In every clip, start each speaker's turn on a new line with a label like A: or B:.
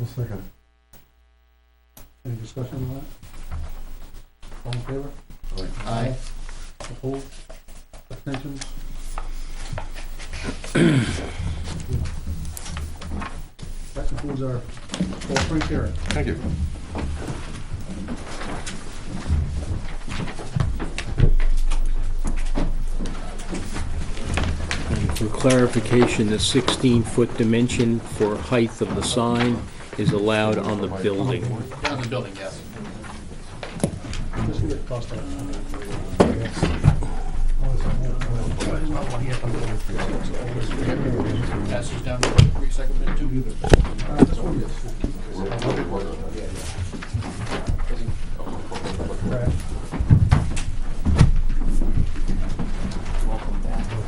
A: I'll second.
B: Any discussion on that? All in favor?
C: Aye.
B: Opposed? Abstentions? That concludes our full print hearing.
A: Thank you.
D: And for clarification, the 16-foot dimension for height of the sign is allowed on the building.
C: On the building, yes.
B: Just get it crossed out.
C: Pass these down to three seconds and two.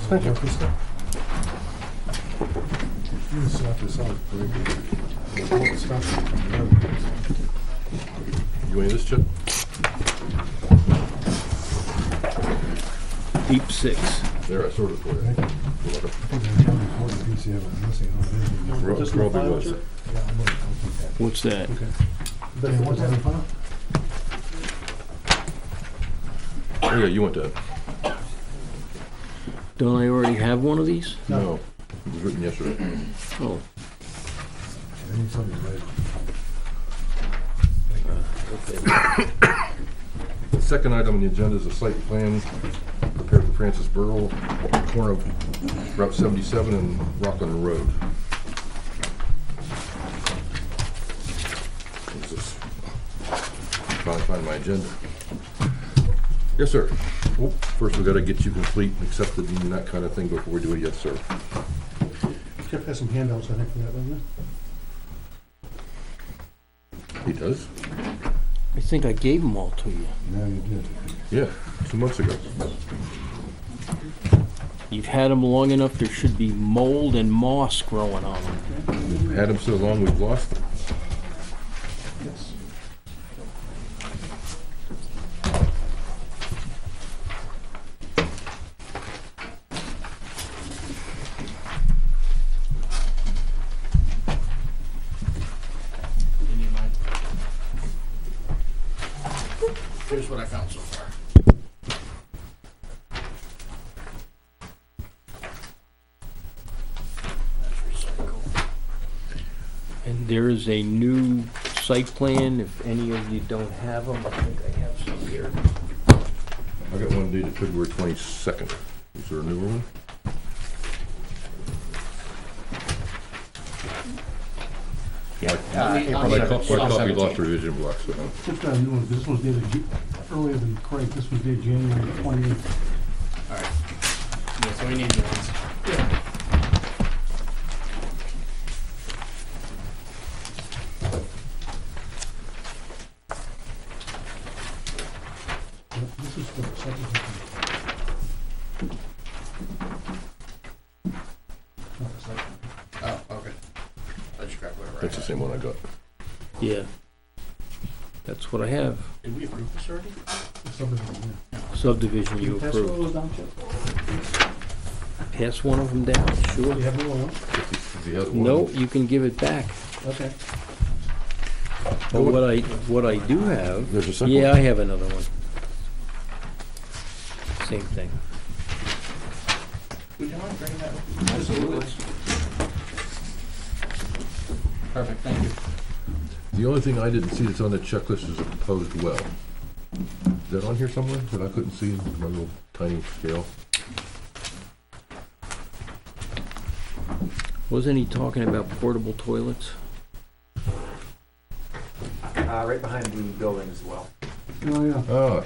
A: Thank you. You can stop this out, very good. Stop it. You want this, Chip?
D: Deep six.
E: There, I sort of put it.
B: Just the
E: Probably
B: file,
E: was.
B: Chip?
D: What's that?
B: Then what's that in front of?
E: Oh, yeah, you went to,
D: Don't I already have one of these?
E: no, it was written yesterday.
D: Oh,
E: The second item on the agenda is a site plan prepared for Francis Burl, corner of Route 77 and Rockland Road. This is- Trying to find my agenda. Yes, sir. Well, First, we gotta get you complete, and accepted, and that kind of thing before we do a yes, sir.
B: Chip has some handouts, I think, for that, doesn't
E: He does?
D: I think I gave them all to you.
A: Now you did.
E: Yeah, two months ago.
D: You've had them long enough, there should be mold and moss growing on them.
E: Had them so long, we've lost them.
B: Yes.
C: You need mine? Here's what I found so far. That's recycled.
D: And there is a new site plan, if any of you don't have them, I think I have some here.
E: I got one dated February twenty-second. Is there a newer one?
B: Uh,
C: I'll need- I'll
E: My
C: need-
E: co- my
C: I'll
E: copy
C: send it
E: lost
C: to you.
E: revision block, so no.
B: Chip's got a new one, this one's dated Ju- earlier than Craig, this one's dated January twenty-eighth.
C: All right. Yeah, so we need new ones.
B: This is for the subdivision. Not the site.
C: Oh, okay. I just grabbed whatever I
E: That's the
C: had.
E: same one I got.
D: Yeah. That's what I have.
C: Did we approve this already?
B: The subdivision, yeah.
D: Subdivision you
B: Pass all
D: approved.
B: those down, Chip?
D: Pass one of them down,
B: You
D: sure.
B: have another one?
E: Is the other one-
D: No, you can give it back.
B: Okay.
D: But what I, what I do have,
E: There's a second
D: yeah,
E: one.
D: I have another one. Same thing.
C: Would you mind bringing that? Absolutely. Perfect, thank you.
E: The only thing I didn't see that's on the checklist is a proposed well. Is that on here somewhere that I couldn't see in my little tiny scale?
D: Wasn't he talking about portable toilets?
F: Uh, right behind the building as well.
B: Oh, yeah.
E: Ah,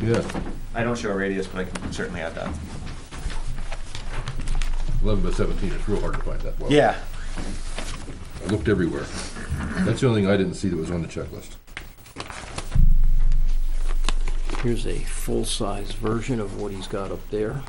E: yeah,
F: I don't show a radius, but I can certainly add that.
E: eleven by seventeen. It's real hard to find that well.
F: Yeah.
E: I looked everywhere. That's the only thing I didn't see that was on the checklist.
D: Here's a full-size version of what he's got up there.